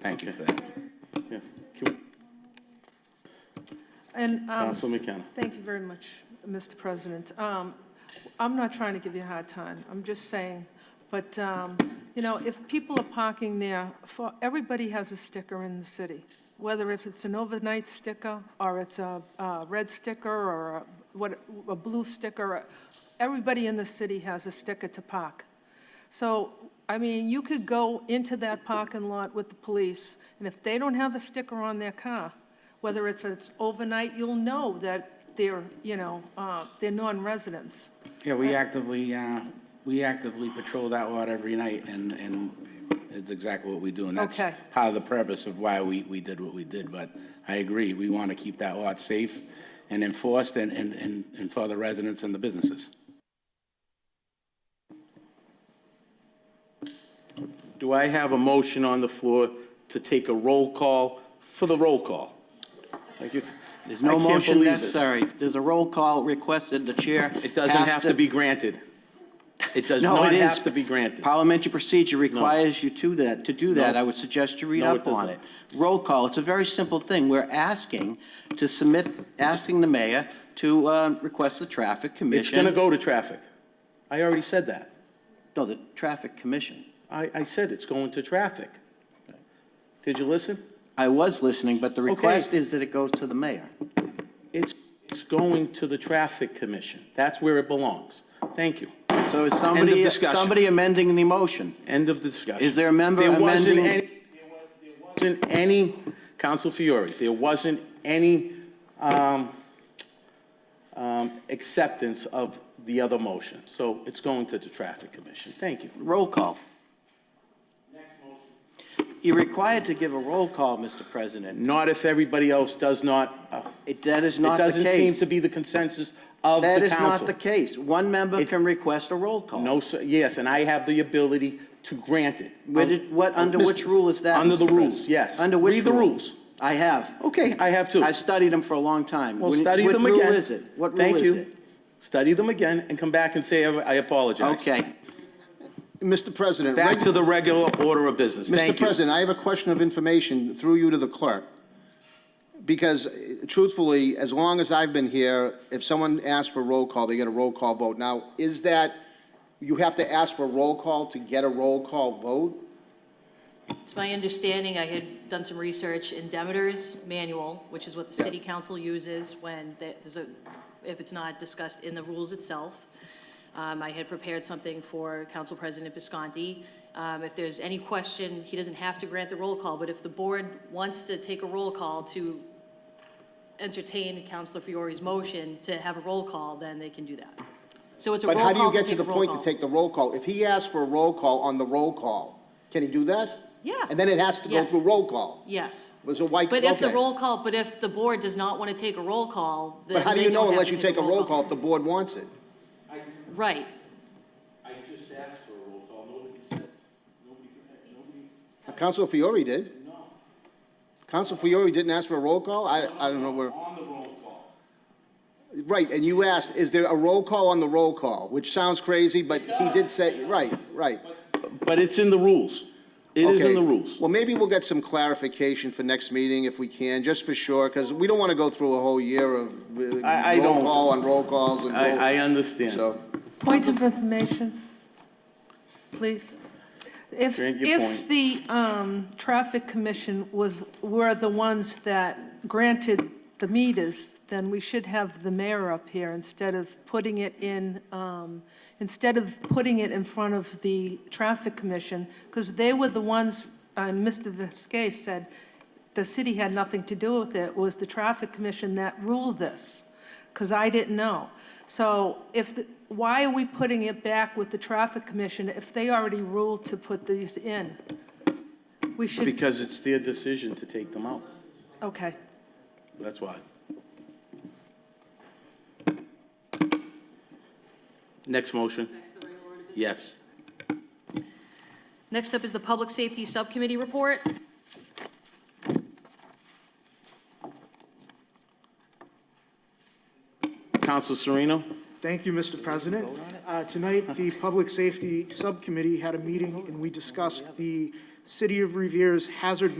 Thank you for that. Yes. Can- And, um, Council McKenna. thank you very much, Mr. President. Um, I'm not trying to give you a hard time, I'm just saying, but, um, you know, if people are parking there, for, everybody has a sticker in the city, whether if it's an overnight sticker, or it's a, uh red sticker, or a, what, a blue sticker, everybody in the city has a sticker to park. So, I mean, you could go into that parking lot with the police, and if they don't have a sticker on their car, whether if it's overnight, you'll know that they're, you know, uh, they're non-residents. Yeah, we actively, uh, we actively patrol that lot every night, and, and it's exactly what we do. And that's Okay. part of the purpose of why we, we did what we did, but I agree, we want to keep that lot safe and enforced and, and, and and for the residents and the businesses. Do I have a motion on the floor to take a roll call for the roll call? Thank you. There's I no can't motion believe this. necessary. There's a roll call requested, the chair. It doesn't has have to be granted. It does No, not it is. have to be granted. Parliamentary procedure requires you to that, to do that. No. I would suggest you read No, it up on doesn't. it. Roll call, it's a very simple thing. We're asking to submit, asking the mayor to uh, request the traffic It's going to commission. go to traffic. I already said that. No, the traffic commission. I, I said it's going to traffic. Did you listen? I was listening, but the Okay. request is that it goes to the mayor. It's, it's going to the Traffic Commission. That's where it belongs. Thank you. So is somebody, discussion. somebody amending the motion? End of discussion. Is there a member There wasn't amending- any- there wa- there Wasn't any, Council Fiore, there wasn't any um, um, acceptance of the other motion. So it's going to the Traffic Commission. Thank you. Roll call. You're required to give a roll call, Mr. President. Not if everybody else does not, uh, It- That is it not the case. doesn't seem to be the consensus of the That council. is not the case. One member It- can request a roll call. No, sir, yes, and I have the ability to grant it. Um, Where did- What, under Mr. which rule is that? Under Mr. the rules, President? yes. Under which Read the rule? rules. I have. Okay, I have too. I've studied them for a long time. Well, When- study them again. What rule is it? What rule Thank is you. it? Study them again and come back and say, I I apologize. Okay. Mr. President, Back reg- to the regular order of business. Mr. Thank you. President, I have a question of information through you to the clerk. Because eh, truthfully, as long as I've been here, if someone asks for roll call, they get a roll call vote. Now, is that, you have to ask for roll call to get a roll call vote? It's my understanding, I had done some research in Demeter's manual, which is what the city council uses when the- there's a, if it's not discussed in the rules itself. Um, I had prepared something for Council President Visconti. Um, if there's any question, he doesn't have to grant the roll call, but if the board wants to take a roll call to entertain Councilor Fiore's motion to have a roll call, then they can do that. So it's a roll But call how to do take a roll you call. get to the point to take the roll call? If he asks for a roll call on the roll call, can he do that? Yeah. And then it has to go Yes. through roll call. Yes. Was it white- But if the okay. roll call, but if the board does not want to take a roll call, then But how do they you don't know have unless to you take a roll call if the board wants it? Right. I just asked for a roll call. Nobody said, nobody, nobody. Council Fiore did. No. Council Fiore didn't ask for a roll call? I, I don't know where. On the roll call. Right, and you asked, is there a roll call on the roll call? Which sounds crazy, but he did say, right, right. But it's in the rules. It is in Okay. the rules. Well, maybe we'll get some clarification for next meeting if we can, just for sure, because we don't want to go through a whole year of uh, I- I roll don't. call and roll calls and roll. I, I understand. So, Point of information, please. If, Grant your if the um, Traffic Commission was, were the ones that granted the meters, then we should have the mayor up here instead of putting it in, um, instead of putting it in front of the Traffic Commission, because they were the ones, and Mr. Viskey said, the city had nothing to do with it, it was the Traffic Commission that ruled this, because I didn't know. So if, the- why are we putting it back with the Traffic Commission if they already ruled to put these in? We should, Because it's their decision to take them out. okay. That's why. Next motion? Yes. Next up is the Public Safety Subcommittee report. Council Sereno? Thank you, Mr. President. Uh, Tonight, the Public Safety Subcommittee had a meeting, and we discussed the City of Revere's hazard